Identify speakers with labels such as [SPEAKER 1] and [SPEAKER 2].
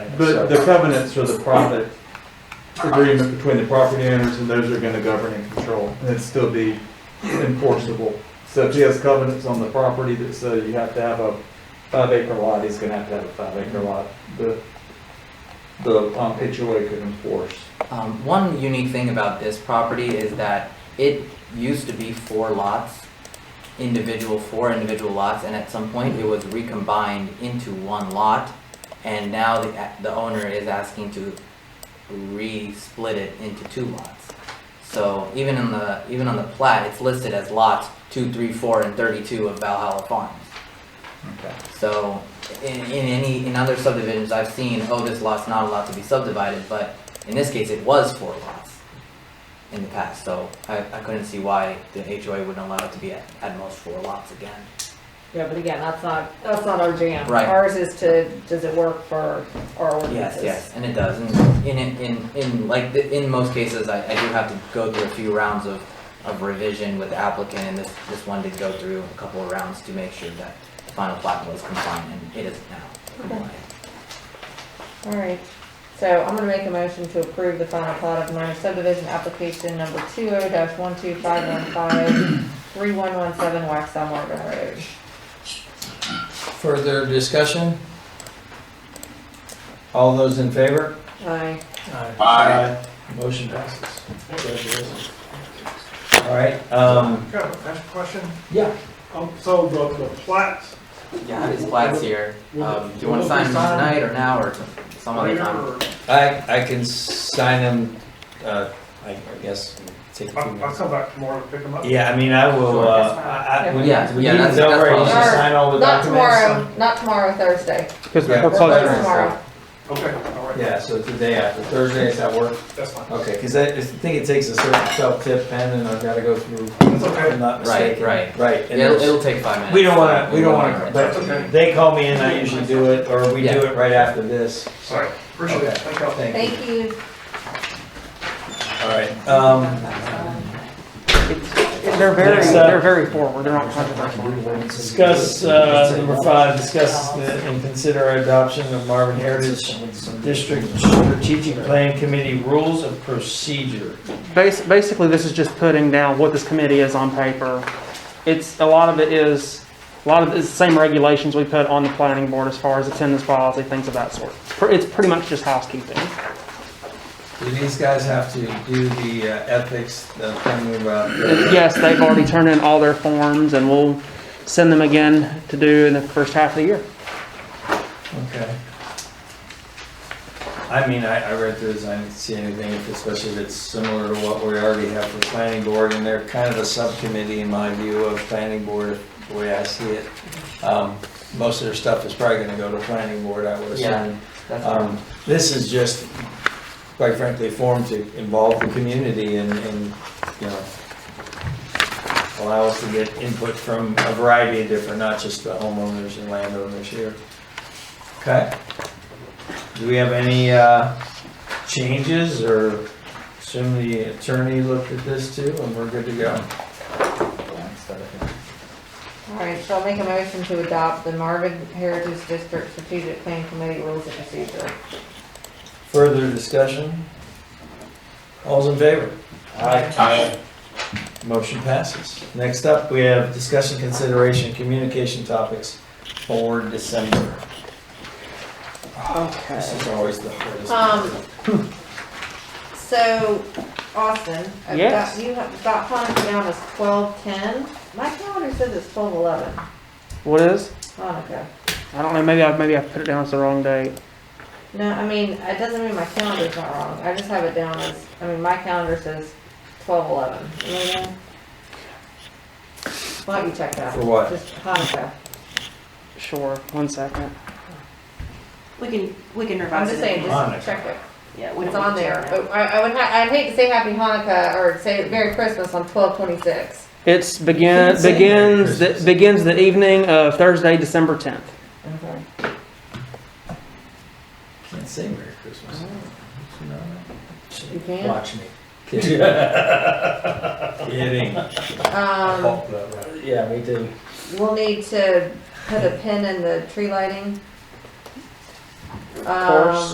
[SPEAKER 1] The, the covenants are the profit agreement between the property owners, and those are gonna govern and control, and it'd still be enforceable. So if he has covenants on the property that say you have to have a five acre lot, he's gonna have to have a five acre lot. The, the um, HOA could enforce.
[SPEAKER 2] Um, one unique thing about this property is that it used to be four lots, individual, four individual lots, and at some point it was recombined into one lot. And now the, the owner is asking to re-split it into two lots. So even in the, even on the plat, it's listed as lots two, three, four, and thirty-two of Valhalla Farms.
[SPEAKER 1] Okay.
[SPEAKER 2] So, in, in any, in other subdivisions, I've seen, oh, this lot's not allowed to be subdivided, but in this case, it was four lots in the past, so I, I couldn't see why the HOA wouldn't allow it to be at, at most four lots again.
[SPEAKER 3] Yeah, but again, that's not, that's not our jam.
[SPEAKER 2] Right.
[SPEAKER 3] Ours is to, does it work for
[SPEAKER 2] Yes,
[SPEAKER 3] our ordinances?
[SPEAKER 2] yes, and it does, and in, in, in, in, like, the- in most cases, I, I do have to go through a few rounds of, of revision with the applicant, and this, this one did go through a couple of rounds to make sure that the final plat was compliant, and it is now compliant.
[SPEAKER 3] All right, so I'm gonna make a motion to approve the final plot of minor subdivision application number two oh dash one two five one five three one one seven Waxaw Morgan Road.
[SPEAKER 4] Further discussion? All those in favor?
[SPEAKER 3] Aye.
[SPEAKER 4] Aye. Motion passes. Congratulations. All right, um,
[SPEAKER 5] Can I have a fast question?
[SPEAKER 4] yeah.
[SPEAKER 5] Um, so the, the plats,
[SPEAKER 2] Yeah, his plat's here. Um, do you want to
[SPEAKER 5] Will it be
[SPEAKER 2] sign them
[SPEAKER 5] signed?
[SPEAKER 2] tonight or now or some
[SPEAKER 5] are
[SPEAKER 2] other
[SPEAKER 5] here,
[SPEAKER 2] time?
[SPEAKER 5] or,
[SPEAKER 4] I, I can sign them, uh, I I guess, take a few
[SPEAKER 5] I'll, I'll
[SPEAKER 4] minutes.
[SPEAKER 5] come back tomorrow to pick them up.
[SPEAKER 4] Yeah, I mean, I will,
[SPEAKER 2] Sure,
[SPEAKER 4] uh,
[SPEAKER 3] that's fine.
[SPEAKER 4] I, I, when,
[SPEAKER 2] Yeah,
[SPEAKER 4] when
[SPEAKER 2] yeah,
[SPEAKER 4] meeting's
[SPEAKER 2] that's- that's
[SPEAKER 4] over, I usually
[SPEAKER 3] fine.
[SPEAKER 4] sign all the
[SPEAKER 3] Not
[SPEAKER 4] documents.
[SPEAKER 3] tomorrow, not tomorrow, Thursday.
[SPEAKER 1] Because
[SPEAKER 4] Yeah.
[SPEAKER 3] Or tomorrow.
[SPEAKER 5] Okay, all right,
[SPEAKER 4] Yeah, so today after, Thursday, is that work?
[SPEAKER 5] that's fine.
[SPEAKER 4] Okay, because I, I think it takes a certain self-tip pen and I've got to go through,
[SPEAKER 5] That's
[SPEAKER 4] if
[SPEAKER 5] okay,
[SPEAKER 4] I'm not
[SPEAKER 2] Right,
[SPEAKER 4] mistaken.
[SPEAKER 2] right.
[SPEAKER 4] Right, and
[SPEAKER 2] Yeah, it'll,
[SPEAKER 4] there's-
[SPEAKER 2] it'll take five minutes.
[SPEAKER 4] We don't wanna, we don't
[SPEAKER 2] won't
[SPEAKER 4] wanna,
[SPEAKER 2] rush.
[SPEAKER 4] but
[SPEAKER 5] That's okay.
[SPEAKER 4] they call me and I usually do it, or we do
[SPEAKER 2] Yeah.
[SPEAKER 4] it right after this.
[SPEAKER 5] sorry, appreciate
[SPEAKER 4] Okay.
[SPEAKER 5] it, thank you.
[SPEAKER 4] Thank
[SPEAKER 3] Thank you.
[SPEAKER 4] you. All right, um,
[SPEAKER 6] They're very,
[SPEAKER 4] Next up.
[SPEAKER 6] they're very forward, they're not controversial.
[SPEAKER 4] discuss, uh, number five, discuss the- and consider adoption of Marvin Heritage District Strategic Plan Committee Rules of Procedure.
[SPEAKER 6] Bas- Basically, this is just putting down what this committee is on paper. It's, a lot of it is, a lot of it's the same regulations we put on the planning board as far as attendance policy, things of that sort. Pr- It's pretty much just housekeeping.
[SPEAKER 4] Do these guys have to do the uh, ethics, the thing about?
[SPEAKER 6] Yes, they've already turned in all their forms and we'll send them again to do in the first half of the year.
[SPEAKER 4] Okay. I mean, I, I read through this, I didn't see anything, if- especially if it's similar to what we already have for planning board, and they're kind of a subcommittee in my view of planning board, the way I see it. Um, most of their stuff is probably gonna go to planning board, I would
[SPEAKER 2] Yeah,
[SPEAKER 4] assume.
[SPEAKER 2] that's
[SPEAKER 4] Um, this is just, quite frankly, formed to involve the community and, and, you know, allow us to get input from a variety of different, not just the homeowners and landowners here. Okay? Do we have any, uh, changes or assume the attorney looked at this too and we're good to go?
[SPEAKER 3] All right, so I'll make a motion to adopt the Marvin Heritage District Strategic Plan Committee Rules of Procedure.
[SPEAKER 4] Further discussion? All's in favor? Aye. Aye. Motion passes. Next up, we have discussion consideration communication topics for December. This
[SPEAKER 3] Okay.
[SPEAKER 4] is always the hardest.
[SPEAKER 3] Um, so Austin, I've
[SPEAKER 6] Yes.
[SPEAKER 3] got, you have, got time down as twelve ten. My calendar says it's twelve eleven.
[SPEAKER 6] What is?
[SPEAKER 3] Hanukkah.
[SPEAKER 6] I don't know, maybe I, maybe I put it down as the wrong date.
[SPEAKER 3] No, I mean, it doesn't mean my calendar's not wrong. I just have it down as, I mean, my calendar says twelve eleven. Why don't you check that?
[SPEAKER 4] For what?
[SPEAKER 3] Just Hanukkah.
[SPEAKER 6] Sure, one second.
[SPEAKER 7] We can, we can
[SPEAKER 3] I'm
[SPEAKER 7] revise it.
[SPEAKER 3] just saying,
[SPEAKER 4] Hanukkah.
[SPEAKER 3] just check it.
[SPEAKER 7] Yeah, we
[SPEAKER 3] It's
[SPEAKER 7] don't
[SPEAKER 3] on
[SPEAKER 7] need to
[SPEAKER 3] there.
[SPEAKER 7] check
[SPEAKER 3] But I, I would, ha- I'd hate to say Happy Hanukkah or say Merry Christmas on twelve twenty-six.
[SPEAKER 6] It's begin,
[SPEAKER 4] Say Merry
[SPEAKER 6] begins, the-
[SPEAKER 4] Christmas.
[SPEAKER 6] begins the evening of Thursday, December 10th.
[SPEAKER 3] Okay.
[SPEAKER 4] Can't say Merry Christmas. No.
[SPEAKER 3] Mm-hmm. You can't?
[SPEAKER 4] Watch me. Kidding. Kidding.
[SPEAKER 3] Um.
[SPEAKER 4] Yeah, me too.
[SPEAKER 3] We'll need to put a pin in the tree lighting.
[SPEAKER 6] course.
[SPEAKER 3] Um,